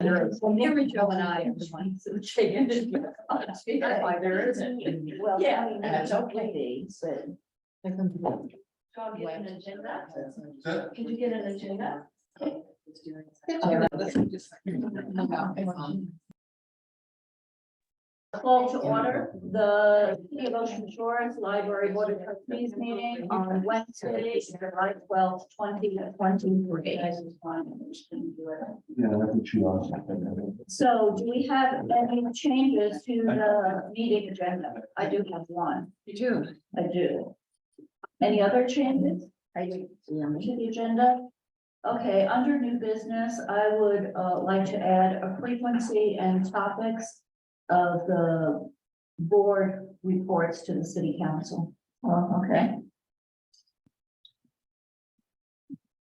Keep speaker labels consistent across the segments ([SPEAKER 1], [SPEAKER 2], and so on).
[SPEAKER 1] There is.
[SPEAKER 2] Well, Mary Jo and I are the ones who changed. That's why there isn't.
[SPEAKER 3] Well,
[SPEAKER 2] Yeah,
[SPEAKER 3] I mean,
[SPEAKER 2] and it's
[SPEAKER 3] that's
[SPEAKER 2] okay.
[SPEAKER 3] okay, but.
[SPEAKER 2] John, get an agenda.
[SPEAKER 1] Huh?
[SPEAKER 2] Could you get an agenda? Call to order the City of Ocean Shores Library Board of Trustees meeting on Wednesday, July twelfth, twenty twenty-three.
[SPEAKER 1] Yeah, I can chew on something.
[SPEAKER 2] So do we have any changes to the meeting agenda? I do have one.
[SPEAKER 3] You do.
[SPEAKER 2] I do. Any other changes?
[SPEAKER 3] I do. Yeah.
[SPEAKER 2] to the agenda. Okay, under new business, I would uh like to add a frequency and topics of the board reports to the city council. Oh, okay.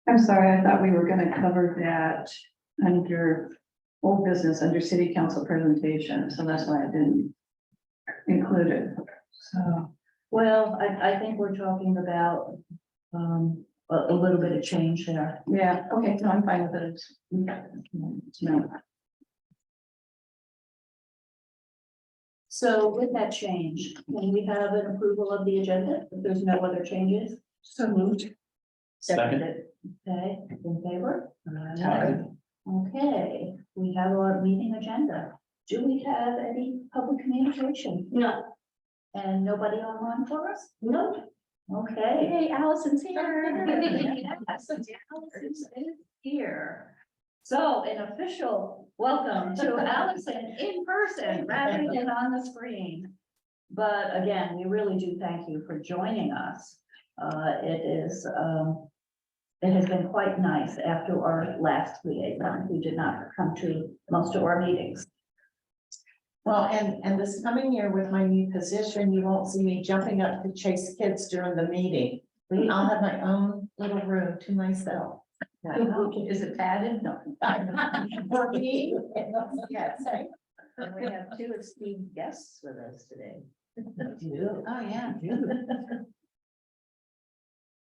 [SPEAKER 4] I'm sorry, I thought we were gonna cover that under old business, under city council presentation, so that's why I didn't include it. So,
[SPEAKER 2] Well, I I think we're talking about um a a little bit of change there.
[SPEAKER 4] yeah, okay, no, I'm fine with it. No,
[SPEAKER 2] So with that change, can we have an approval of the agenda? If there's no other changes,
[SPEAKER 3] So moved.
[SPEAKER 1] Second.
[SPEAKER 2] okay, in favor?
[SPEAKER 1] Aye.
[SPEAKER 2] Okay, we have our meeting agenda. Do we have any public communication? No. And nobody online for us? No. Okay.
[SPEAKER 3] Hey, Allison's
[SPEAKER 2] Allison's is Here. So an official welcome to Allison in person rather than on the screen. But again, we really do thank you for joining us. Uh, it is, um, it has been quite nice after our last liaison, who did not come to most of our meetings.
[SPEAKER 3] Well, and, and this coming year with my new position, you won't see me jumping up to chase kids during the meeting. I'll have my own little room to myself.
[SPEAKER 4] is it padded? No.
[SPEAKER 3] For me, yes.
[SPEAKER 2] And we have two esteemed guests with us today.
[SPEAKER 3] Oh, yeah.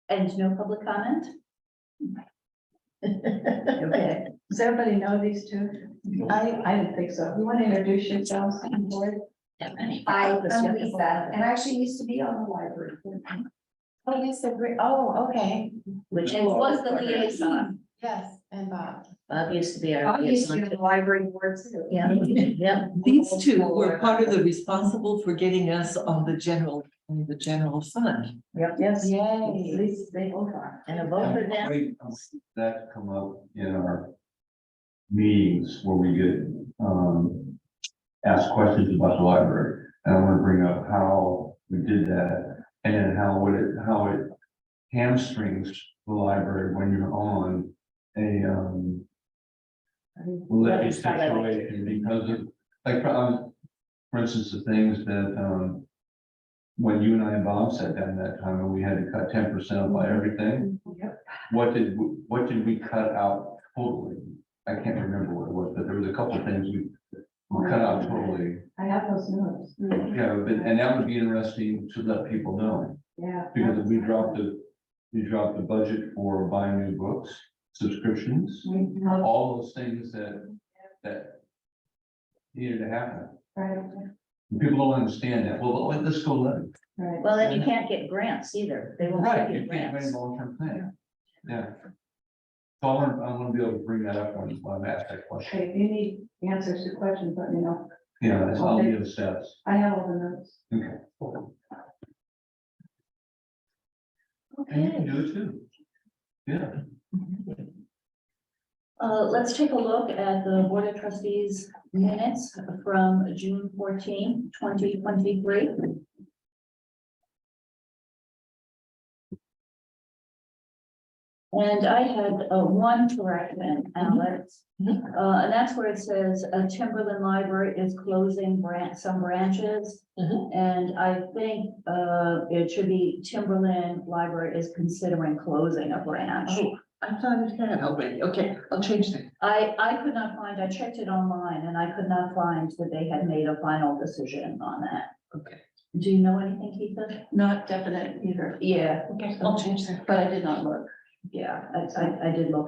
[SPEAKER 2] And no public comment? Okay.
[SPEAKER 4] Does everybody know these two? I, I didn't think so. You want to introduce yourselves? to the board?
[SPEAKER 3] Hi,
[SPEAKER 4] I'm
[SPEAKER 3] I'm Lisa, and I actually used to be on the library. board. Oh, yes, so great. Oh, okay.
[SPEAKER 2] Which was the liaison.
[SPEAKER 3] Yes, and Bob.
[SPEAKER 2] Bob used to be
[SPEAKER 4] I used to be on the library board too.
[SPEAKER 2] Yeah, yeah.
[SPEAKER 5] These two were part of the responsible for getting us on the general, on the general fund.
[SPEAKER 4] Yes, at
[SPEAKER 3] Yay.
[SPEAKER 4] least they both are.
[SPEAKER 2] And a vote for them.
[SPEAKER 1] Wait, That come up in our meetings where we get, um, asked questions about the library. And I want to bring up how we did that and then how would it, how it hamstrings the library when you're on a, um, levy situation because of, like, um, for instance, the things that, um, when you and I and Bob sat down that time and we had to cut ten percent off by everything, what did, w- what did we cut out totally? I can't remember what it was, but there was a couple of things we, we cut out totally.
[SPEAKER 4] I have those notes.
[SPEAKER 1] Yeah, but, and that would be interesting to let people know,
[SPEAKER 4] Yeah.
[SPEAKER 1] because we dropped the, we dropped the budget for buying new books, subscriptions,
[SPEAKER 4] We helped
[SPEAKER 1] all those things that, that needed to happen.
[SPEAKER 4] Right,
[SPEAKER 1] People don't understand that. Well, let- let's go let it.
[SPEAKER 4] right.
[SPEAKER 2] Well, and you can't get grants either. They won't
[SPEAKER 1] Right,
[SPEAKER 2] give
[SPEAKER 1] you
[SPEAKER 2] you
[SPEAKER 1] can't have any
[SPEAKER 2] grants.
[SPEAKER 1] long-term plan. Yeah. So I want, to I want to be able to bring that up when, when I ask that question.
[SPEAKER 4] Hey, if you need answers to questions, let me know.
[SPEAKER 1] Yeah, that's all
[SPEAKER 4] Okay.
[SPEAKER 1] the steps.
[SPEAKER 4] I have all the notes.
[SPEAKER 1] Okay. And you can
[SPEAKER 2] Okay,
[SPEAKER 1] do it too. Yeah,
[SPEAKER 2] uh, let's take a look at the Board of Trustees minutes from June 14, 2023. And I had uh, one correction, Alex, uh, and that's where it says uh, Timberland Library is closing branch, some branches.
[SPEAKER 5] Mhm.
[SPEAKER 2] And I think uh, it should be Timberland Library is considering closing a branch.
[SPEAKER 5] I thought it had already. Okay, I'll change that.
[SPEAKER 2] I, I could not find, I checked it online and I could not find that they had made a final decision on that.
[SPEAKER 5] Okay.
[SPEAKER 2] Do you know anything, Keitha?
[SPEAKER 4] Not definite either,
[SPEAKER 2] Yeah,
[SPEAKER 5] Okay, I'll change that.
[SPEAKER 4] but I did not look.
[SPEAKER 2] yeah, I, I, I did look